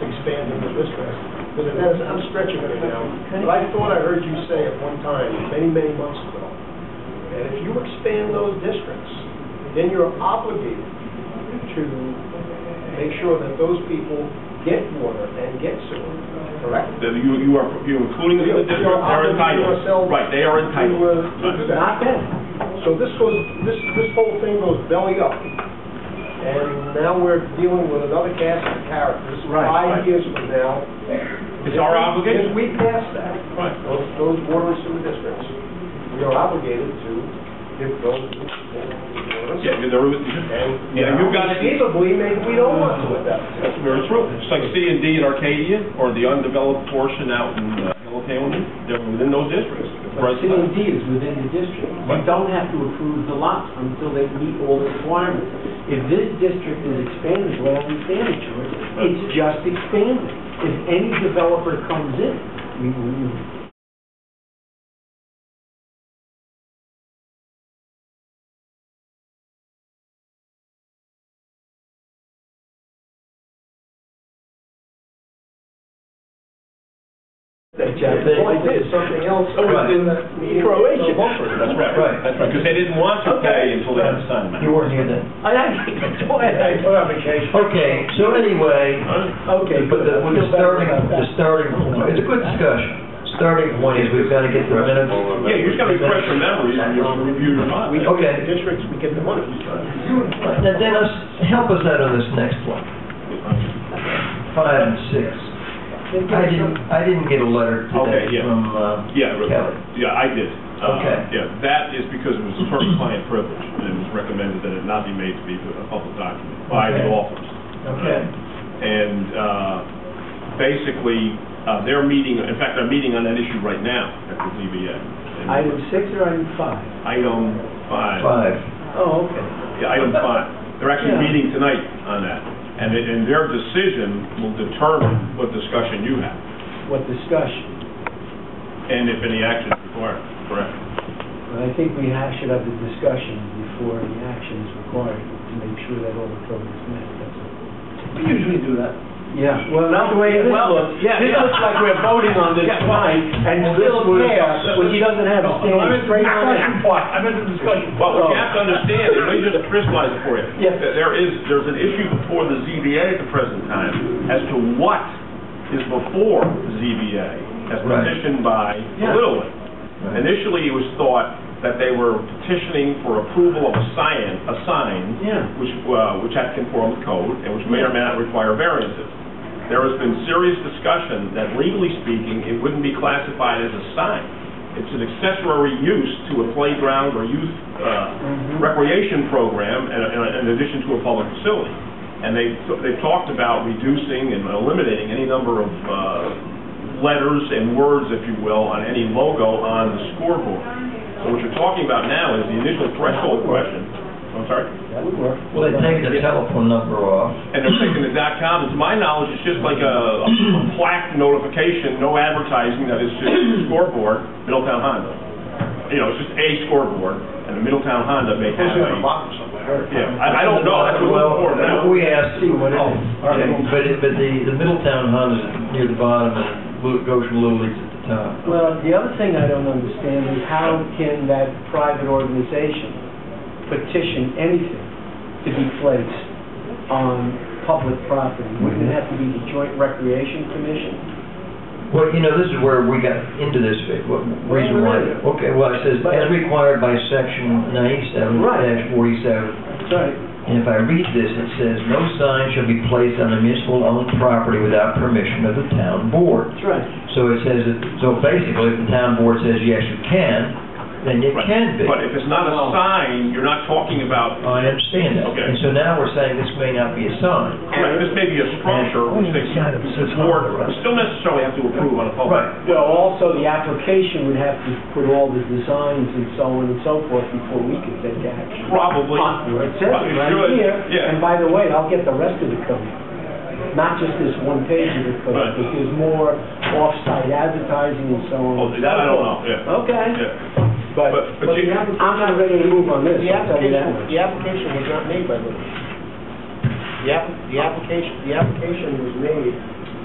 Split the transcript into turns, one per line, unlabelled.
expand into this rest, because it has, I'm stretching it now, but I thought I heard you say at one time, many, many months ago, that if you expand those districts, then you're obligated to make sure that those people get water and get sewer, correct?
That You, you are, you're including them in the district,
You're
they're
obligating
entitled.
yourself
Right, they are entitled.
to, uh, to do that.
Not them.
So this goes, this, this whole thing goes belly up, and now we're dealing with another cast of characters.
Right, right.
Five years from now.
It's our obligation.
If we pass that,
Right.
those, those water and sewer districts, we are obligated to give those.
Yeah, you're there with,
And-
yeah, you got it.
Conceivably, maybe we don't want to at that
That's very true. It's like C and D in Arcadia, or the undeveloped portion out in uh, Hilltown, they're within those districts.
But C and D is within the district. You
Right.
don't have to approve the lots until they meet all the requirements. If this district is expanded, well, we stand it, George, it's just expanded. If any developer comes in, we, we,
That the point is, something else. in the Croatia.
That's right, that's right, because they didn't want to pay until they had a sign.
You weren't here then.
I, I, go ahead.
Okay, so anyway,
Okay,
but the, the starting, the starting point, it's a good discussion. Starting point is we've got to get the minutes.
Yeah, you just gotta refresh your memories and you review your mind.
Okay,
Districts, we get the money.
now Dennis, help us out on this next one. Five and six. I didn't, I didn't get a letter
Okay, yeah.
today from uh,
Yeah, re-
Kelly.
yeah, I did. Uh,
Okay.
Yeah, that is because it was attorney client privilege, and it was recommended that it not be made to be a public document by the
Okay.
law firms.
Okay,
And uh, basically, uh, they're meeting, in fact, they're meeting on that issue right now at the ZBA. And
Item six or item five?
Item five.
five.
Oh, okay.
Yeah, item five. They're actually
Yeah.
meeting tonight on that. And, it- and their decision will determine what discussion you have,
What discussion?
and if any action is required, correct?
But I think we ha- should have the discussion before the action is required to make sure that all the code is met, that's all.
We usually do that.
Yeah, well, not the way this looks. This looks like we're voting on this tonight, and still there, when he doesn't have a standing straight on it.
I'm in the discussion. Well, what you have to understand, and let me just crystallize it for you.
Yes.
That There is, there's an issue before the ZBA at the present time as to what is before ZBA as
Right.
petitioned by
Yeah.
Little League. Initially, it was thought that they were petitioning for approval of a sign, a sign,
Yeah.
which, uh, which had to conform with code, and which may or may not require variances. There has been serious discussion that legally speaking, it wouldn't be classified as a sign. It's an accessory use to a playground or youth uh, recreation program in- in- in addition to a public facility. And they've, they've talked about reducing and eliminating any number of uh, letters and words, if you will, on any logo on the scoreboard. So what you're talking about now is the initial threshold question. I'm sorry?
That would work.
Well, they take the telephone number off.
And they're taking the dot com, and to my knowledge, it's just like a a plaque notification, no advertising, that is just scoreboard, Middletown Honda. You know, it's just a scoreboard, and the Middletown Honda may have a... Yeah, I, I don't know, that's what we're for now.
Well, we asked,
See what it is.
oh, okay, but, it- but the, the Middletown Hunt is near the bottom and Lu- Goshen Little League's at the top.
Well, the other thing I don't understand is how can that private organization petition anything to be placed on public property? Wouldn't it have to be the Joint Recreation Commission?
Well, you know, this is where we got into this, Vic, what reason why.
Wait a minute.
Okay, well, it says, as required by section ninety-seven forty-seven.
That's right.
And if I read this, it says, no sign shall be placed on a municipal-owned property without permission of the town board.
That's right.
So it says, that- so basically, if the town board says, yes, you can, then it
Right.
can be.
But if it's not a
Well-
sign, you're not talking about,
I understand that.
Okay.
And so now we're saying this may not be a sign.
correct, this may be a structure, which they,
Yeah, it's- it's-
board, still necessarily have to approve on a public.
Right.
Well, also, the application would have to put all the designs and so on and so forth before we could take action.
Probably.
Well, It says it
Probably
right
should,
here, and
yeah.
by the way, I'll get the rest of the code, not just this one page of the code,
Right.
because there's more off-site advertising and so on.
Oh, that I don't know, yeah.
Okay,
Yeah.
but,
But- but
but
you-
I'm not ready to move on this,
The
I'll tell you that.
application, the application was not made by Liberty. The app, the application, the application was made